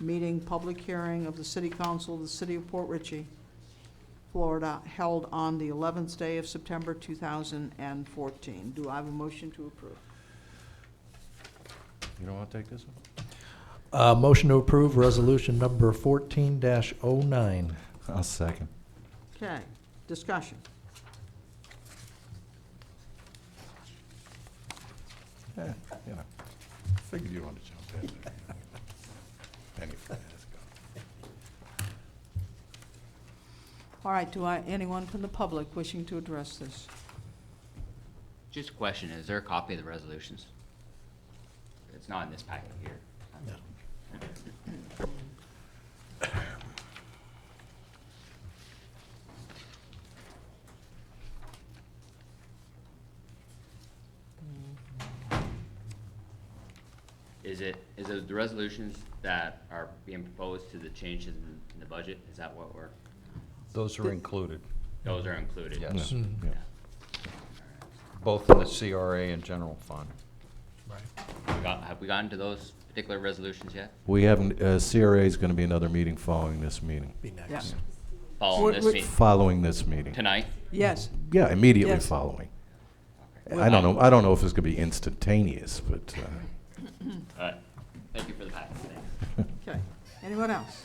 meeting, public hearing of the City Council of the City of Port Ritchie, Florida, held on the 11th day of September 2014. Do I have a motion to approve? You don't want to take this one? Uh, motion to approve resolution number fourteen oh 9 I'll second. Okay, discussion. Yeah, you know, figured you wanted to jump in. there. Anyway, let's go. All right, do I, anyone from the public wishing to address this? Just a question, is there a copy of the resolutions? It's not in this packet here. Is it, is it the resolutions that are being proposed to the changes in in the budget? Is that what we're, Those are included, those are included? yes, Mm-hmm. Yeah. both in the CRA and general fund. We got- Have we gotten to those particular resolutions yet? We haven't, uh, CRA is going to be another meeting following this meeting, Be next. Following this Would- meeting, following this meeting. tonight? Yes, Yeah, immediately Yes. following. I don't know, I don't know if it's going to be instantaneous, but, uh, All right, thank you for the package, thanks. okay. Anyone else?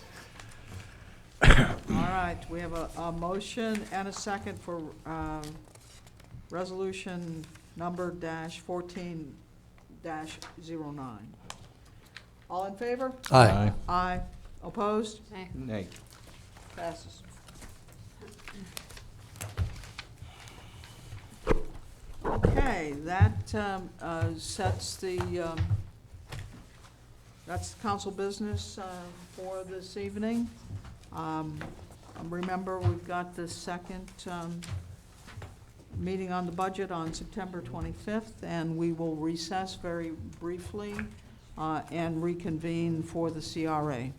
All right, we have a, a motion and a second for, um, resolution number dash fourteen dash zero nine. All in favor? Aye. Aye. Opposed? Nay. Passes. Okay, that um, uh, sets the, um, that's council business uh, for this evening. Um, Remember, we've got the second um, meeting on the budget on September 25th, and we will recess very briefly uh, and reconvene for the CRA